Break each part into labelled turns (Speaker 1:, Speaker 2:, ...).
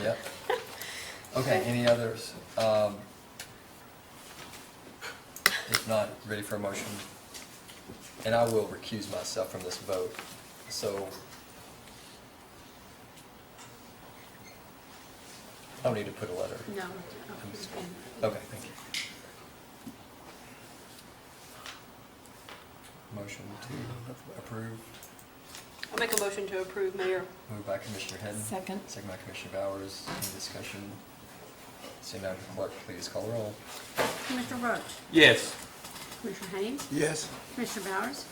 Speaker 1: Yep. Okay, any others? Um, If not, ready for a motion? And I will recuse myself from this vote, so. I don't need to put a letter.
Speaker 2: No.
Speaker 1: I'm just- Okay, thank you. Motion to approve,
Speaker 2: I'll make a motion to approve, Mayor.
Speaker 1: moved by Commissioner Hadden.
Speaker 3: Second.
Speaker 1: Second by Commissioner Bowers, any discussion? Seeing none, clerk, please call the roll.
Speaker 4: Commissioner Roach?
Speaker 5: Yes.
Speaker 4: Commissioner Haynes?
Speaker 5: Yes.
Speaker 4: Commissioner Bowers?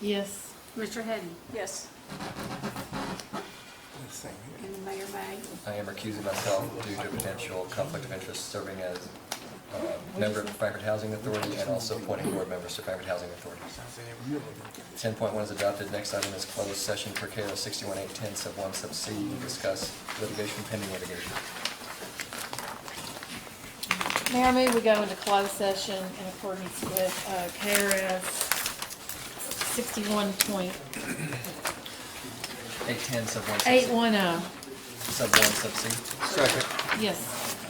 Speaker 3: Yes.
Speaker 4: Commissioner Hadden?
Speaker 2: Yes.
Speaker 4: And Mayor May?
Speaker 1: I am recusing myself due to potential conflict of interest serving as uh, member of the Frankfurt Housing Authority and also appointing board members to Frankfurt Housing Authority. Ten point one is adopted. Next item is closed session per KO sixty-one eight ten sub one sub C to discuss litigation pending litigation.
Speaker 3: Mayor, may we go into closed session in accordance with uh, KRS 61 point
Speaker 1: Eight ten sub one sub C.
Speaker 3: 810.
Speaker 1: Sub one sub C.
Speaker 5: Second.
Speaker 3: Yes.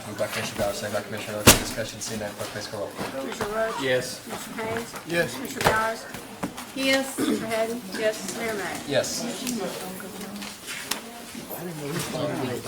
Speaker 1: Moved by Commissioner Bowers, second by Commissioner Roach. Any Discussion, seeing none, clerk, please call roll.
Speaker 4: Commissioner Roach?
Speaker 5: Yes.
Speaker 4: Commissioner Haynes?
Speaker 5: Yes.
Speaker 4: Commissioner Bowers?
Speaker 3: Yes.
Speaker 4: Commissioner Hadden? Yes. Mayor May?
Speaker 1: Yes.